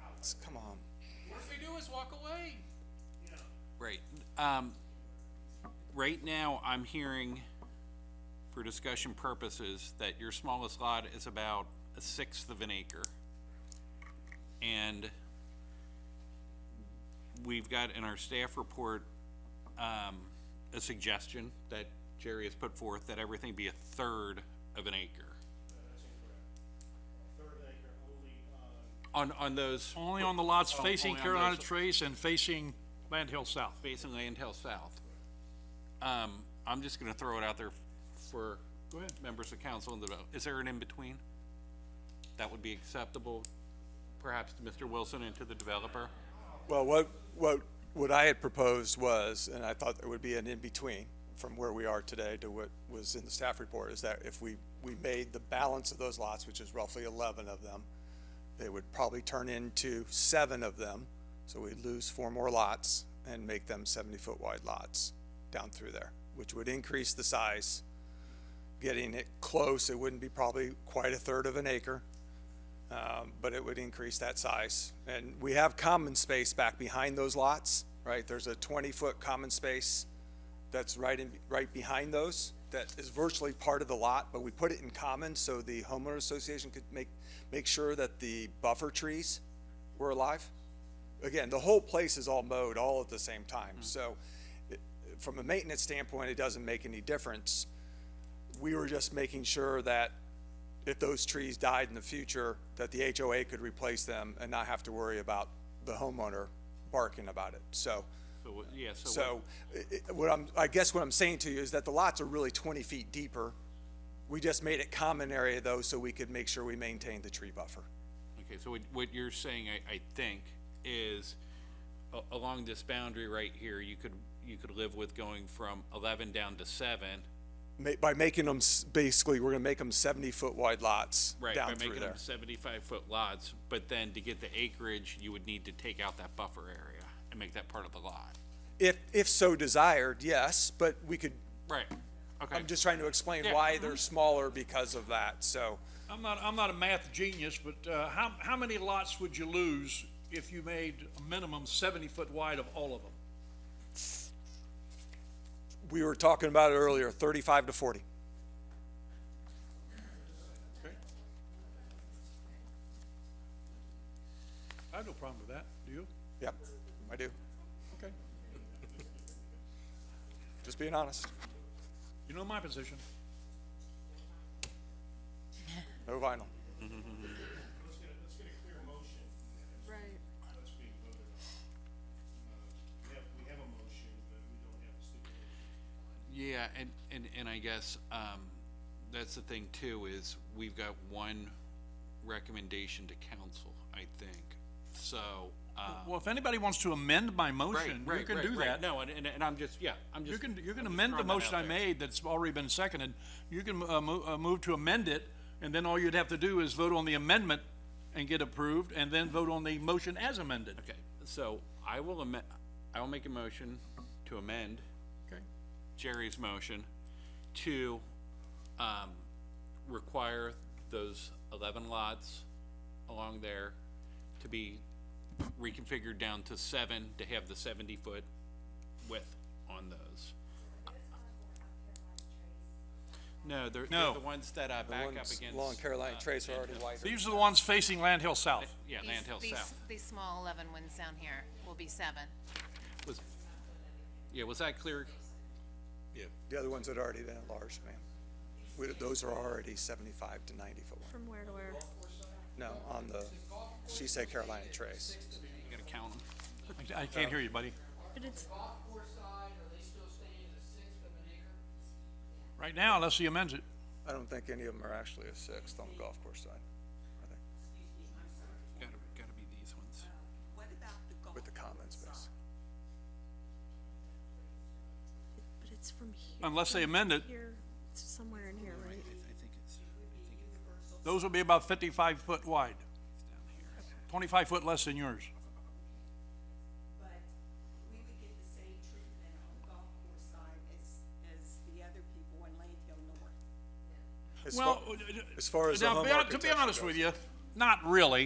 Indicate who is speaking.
Speaker 1: bucks, come on.
Speaker 2: Worst we do is walk away.
Speaker 3: Right, um, right now, I'm hearing, for discussion purposes, that your smallest lot is about a sixth of an acre. And we've got in our staff report, um, a suggestion that Jerry has put forth, that everything be a third of an acre.
Speaker 4: That's incorrect. Third acre only, uh,
Speaker 3: On, on those,
Speaker 5: Only on the lots
Speaker 3: Oh,
Speaker 5: facing
Speaker 3: only on
Speaker 5: Carolina
Speaker 3: those.
Speaker 5: Trace and facing Land Hill South.
Speaker 3: facing Land Hill South. Um, I'm just gonna throw it out there for
Speaker 5: Go ahead.
Speaker 3: members of council and the, vote. is there an in-between? That would be acceptable, perhaps to Mr. Wilson and to the developer?
Speaker 1: Well, what, what, what I had proposed was, and I thought there would be an in-between from where we are today to what was in the staff report, is that if we, we made the balance of those lots, which is roughly eleven of them, they would probably turn into seven of them, so we'd lose four more lots and make them seventy-foot wide lots down through there, which would increase the size. Getting it close, it wouldn't be probably quite a third of an acre, um, but it would increase that size. And we have common space back behind those lots, right? There's a 20-foot common space that's right in, right behind those, that is virtually part of the lot, but we put it in common so the homeowner association could make, make sure that the buffer trees were alive. Again, the whole place is all mowed all at the same time, so it- from a maintenance standpoint, it doesn't make any difference. We were just making sure that if those trees died in the future, that the HOA could replace them and not have to worry about the homeowner barking about it. So,
Speaker 3: So, yeah, so.
Speaker 1: so i- i- what I'm, I guess what I'm saying to you is that the lots are really 20 feet deeper. We just made it common area though, so we could make sure we maintain the tree buffer.
Speaker 3: Okay, so what, what you're saying, I, I think, is a- along this boundary right here, you could, you could live with going from eleven down to seven.
Speaker 1: Ma- By making them, s- basically, we're gonna make them 70-foot wide lots
Speaker 3: Right, by
Speaker 1: down through
Speaker 3: making
Speaker 1: there.
Speaker 3: them seventy-five foot lots, but then to get the acreage, you would need to take out that buffer area and make that part of the lot.
Speaker 1: If, if so desired, yes, but we could,
Speaker 3: Right, okay.
Speaker 1: I'm just trying to explain
Speaker 3: Yeah. Mm-hmm.
Speaker 1: why they're smaller because of that, so.
Speaker 5: I'm not, I'm not a math genius, but, uh, how, how many lots would you lose if you made a minimum seventy foot wide of all of them?
Speaker 1: we were talking about it earlier, thirty-five to forty.
Speaker 5: I have no problem with that, do you?
Speaker 1: Yep, I do.
Speaker 5: Okay,
Speaker 1: Just being honest.
Speaker 5: you know my position.
Speaker 1: No vinyl.
Speaker 4: let's get, a- let's get a clear motion.
Speaker 6: Right.
Speaker 4: Let's be voted on. Uh, We have, we have a motion, but we don't have a stipulation.
Speaker 3: Yeah, and, and, and I guess, um, that's the thing too, is we've got one recommendation to council, I think, so, um.
Speaker 5: Well, if anybody wants to amend my
Speaker 3: Right,
Speaker 5: motion, you
Speaker 3: right,
Speaker 5: can
Speaker 3: right,
Speaker 5: do
Speaker 3: right,
Speaker 5: that.
Speaker 3: no, and, and, and I'm just, yeah, I'm just.
Speaker 5: You can, you can
Speaker 3: I'm just
Speaker 5: amend the
Speaker 3: throwing that
Speaker 5: motion
Speaker 3: out
Speaker 5: I
Speaker 3: there.
Speaker 5: made that's already been seconded. You can, uh, mo- uh, move to amend it, and then all you'd have to do is vote on the amendment and get approved, and then vote on the motion as amended.
Speaker 3: Okay, so I will amend, I will make a motion to amend
Speaker 5: Okay.
Speaker 3: Jerry's motion to, um, require those eleven lots along there to be reconfigured down to seven, to have the seventy-foot width on those. No, they're, they're
Speaker 5: No.
Speaker 3: the ones that I back up
Speaker 1: Ones
Speaker 3: against.
Speaker 1: Long Carolina
Speaker 3: uh,
Speaker 1: Trace are already wider.
Speaker 5: These are the ones facing Land Hill South.
Speaker 3: Yeah,
Speaker 6: These-
Speaker 3: Land Hill
Speaker 6: these-
Speaker 3: South.
Speaker 6: These small 11 ones down here will be seven.
Speaker 3: Was, yeah, was that clear?
Speaker 1: The other ones that are already that large, ma'am. We- Those are already seventy-five to ninety foot wide.
Speaker 6: From where to where?
Speaker 1: No, on the, she said Carolina Trace.
Speaker 3: You gotta count 'em.
Speaker 5: I I can't hear you,
Speaker 3: Uh,
Speaker 5: buddy.
Speaker 6: But it's,
Speaker 7: golf course side, are they still staying at a sixth of an acre?
Speaker 5: Right now, unless he amends it.
Speaker 1: I don't think any of them are actually a sixth on the golf course side, are they?
Speaker 3: Gotta, gotta be these ones.
Speaker 1: With the common space.
Speaker 8: But it's from here.
Speaker 5: Unless they
Speaker 8: from
Speaker 5: amend it.
Speaker 8: Here, it's somewhere in here, right?
Speaker 5: Those will be about fifty-five foot wide. Twenty-five foot less than yours.
Speaker 9: but we would get the same treatment on the golf course side as, as the other people in Land Hill North.
Speaker 1: As
Speaker 5: Well,
Speaker 1: far- as far as the
Speaker 5: now,
Speaker 1: home
Speaker 5: be hon- to be
Speaker 1: architecture
Speaker 5: honest
Speaker 1: goes.
Speaker 5: with you, not really.